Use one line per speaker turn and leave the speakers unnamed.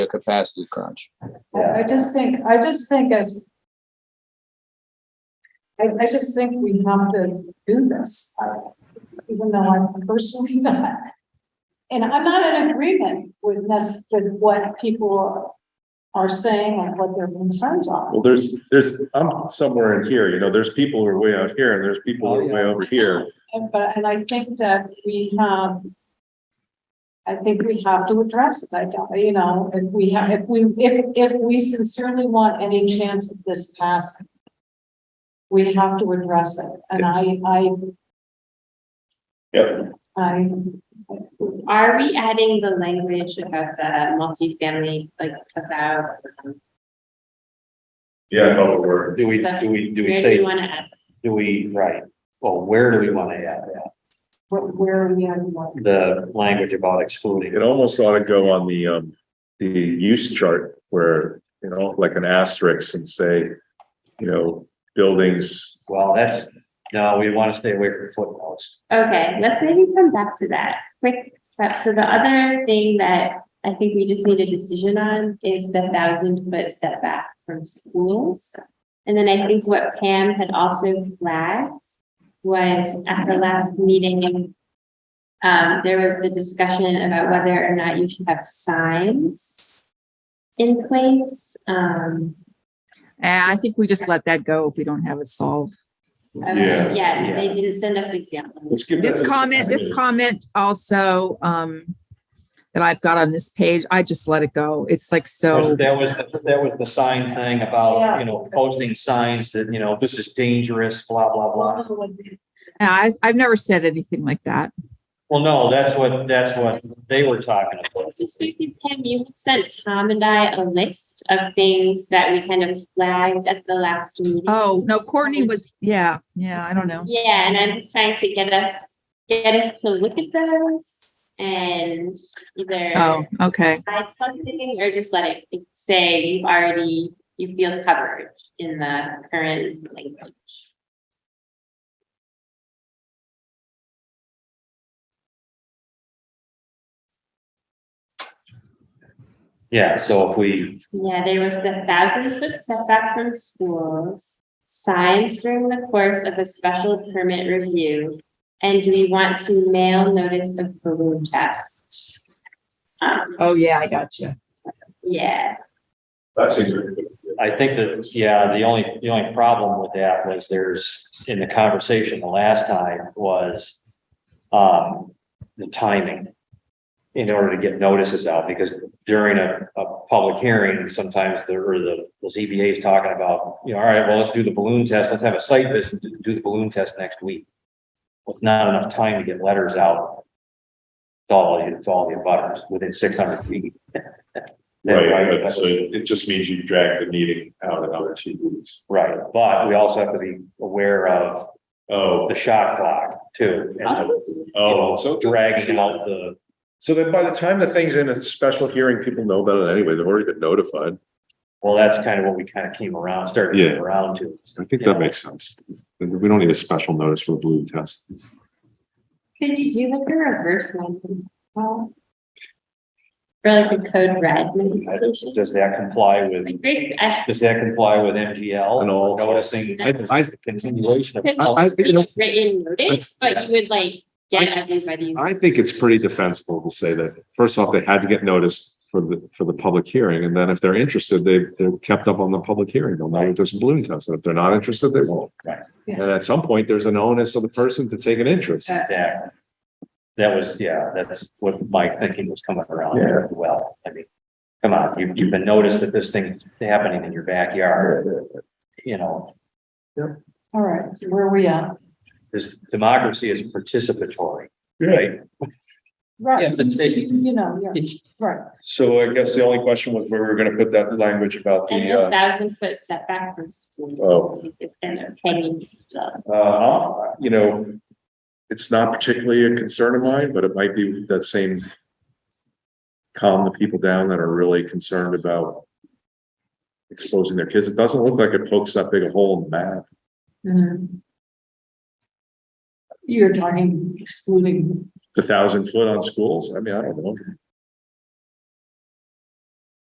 a capacity crunch.
I I just think, I just think as. I, I just think we have to do this, uh, even though I'm personally not. And I'm not in agreement with this, with what people are saying and what their concerns are.
Well, there's, there's, I'm somewhere in here, you know, there's people who are way out here and there's people
Oh,
who are way over here.
And, Um, but, and I think that we have. I think we have to address it, I don't, you know, if we have, if we, if, if we sincerely want any chance of this passing. We have to address it, and I, I,
Yep.
I,
Are we adding the language about the multifamily, like about? um,
Yeah, I thought we were.
Do we,
Stuff.
do we, do we
Where do you
say,
want to add?
do we, right, well, where do we want to add that?
where, where are we at, what,
The language about excluding.
It almost ought to go on the, um, the use chart where, you know, like an asterisk and say, you know, buildings.
Well, that's, no, we want to stay away from footnotes.
Okay, let's maybe come back to that quick. That's for the other thing that I think we just need a decision on is the thousand foot setback from schools. And then I think what Pam had also flagged was at the last meeting. Um, there was the discussion about whether or not you should have signs in place, um.
Eh, I think we just let that go if we don't have it solved.
Okay,
Yeah,
Yeah, they didn't send us examples.
Let's give
This comment, this comment also, um, that I've got on this page, I just let it go. It's like so,
That was, that was the sign thing about, you know,
Yeah.
posting signs that, you know, this is dangerous, blah, blah, blah.
and I, I've never said anything like that.
Well, no, that's what, that's what they were talking
I
about.
was just thinking, Pam, you had sent Tom and I a list of things that we kind of flagged at the last meeting.
Oh, no, Courtney was, yeah, yeah, I don't know.
Yeah, and I'm just trying to get us, get us to look at those and
Oh,
either
okay.
hide something or just let it say you've already, you feel covered in the current language.
Yeah, so if we,
Yeah, there was the thousand foot setback from schools, signs during the course of a special permit review. And we want to mail notice of balloon test. Um,
Oh, yeah, I got you.
yeah,
That's a
I think that, yeah, the only, the only problem with that was there's, in the conversation the last time was um, the timing in order to get notices out, because during a, a public hearing, sometimes the, or the, the ZBA is talking about, you know, all right, well, let's do the balloon test, let's have a site visit, and do the balloon test next week. Well, it's not enough time to get letters out. to all, to all the abutters within six hundred feet.
Right, so it just means you drag the meeting out another two weeks.
Right, but we also have to be aware of
Oh,
the shot clock too. and the,
also,
you know,
oh, so.
Dragging out the,
So then by the time the thing's in a special hearing, people know about it anyway. They've already been notified.
well, that's kind of what we kind of came around, started to
Yeah.
come around to.
I think that makes sense. We don't need a special notice for a balloon test.
could you do like a reverse one? Well, Or like a code red notification?
Does that comply with,
Like, great, I-
does that comply with MGL?
And all-
Noticing
I- I-
the continuation of.
because
I- I- you know-
Written notice, but you would like get
I-
everybody's.
I think it's pretty defensible to say that, first off, they had to get noticed for the, for the public hearing, and then if they're interested, they, they're kept up on the public hearing, they'll know if there's a balloon test, and if they're not interested, they won't.
Right.
Yeah.
And at some point, there's an onus of the person to take an interest.
Uh,
Exactly. That was, yeah, that's what my thinking was coming around there as well. I mean, come on, you've, you've been noticed that this thing's happening in your backyard. You know,
all right, so where are we at?
this democracy is participatory, right? You
Right,
have to take-
you know, yeah, right,
So I guess the only question was where we were gonna put that language about uh,
And a thousand foot setback from
Oh.
school is kind of hanging still.
Uh, you know, it's not particularly a concern of mine, but it might be that same calm the people down that are really concerned about exposing their kids. It doesn't look like it pokes that big a hole in the map.
Mhm. You're talking excluding
The thousand foot on schools, I mean, I don't know.